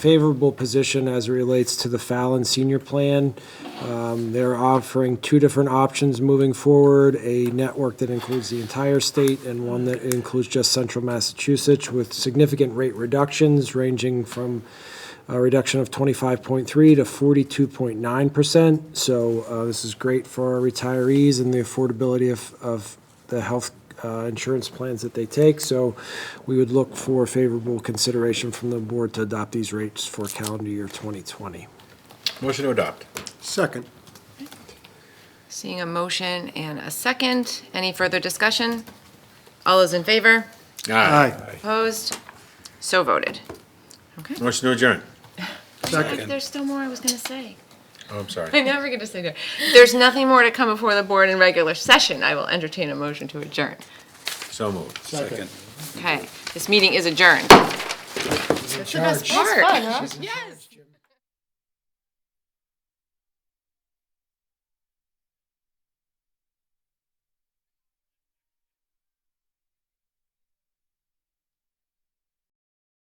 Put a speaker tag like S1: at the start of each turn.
S1: favorable position as it relates to the Fallon Senior Plan. Um, They're offering two different options moving forward, a network that includes the entire state and one that includes just central Massachusetts with significant rate reductions ranging from a reduction of 25.3 to 42.9%. So uh, this is great for our retirees and the affordability of, of the health uh, insurance plans that they take. So we would look for favorable consideration from the board to adopt these rates for calendar year 2020.
S2: Motion to adopt.
S3: Second.
S4: Seeing a motion and a second, any further discussion? All those in favor?
S3: Aye.
S4: Opposed? So voted. Okay.
S2: Motion to adjourn.
S3: Second.
S4: There's still more I was going to say.
S2: Oh, I'm sorry.
S4: I never get to say that. There's nothing more to come before the board in regular session. I will entertain a motion to adjourn.
S2: So moved.
S3: Second.
S4: Okay, this meeting is adjourned. That's the best part. Yes.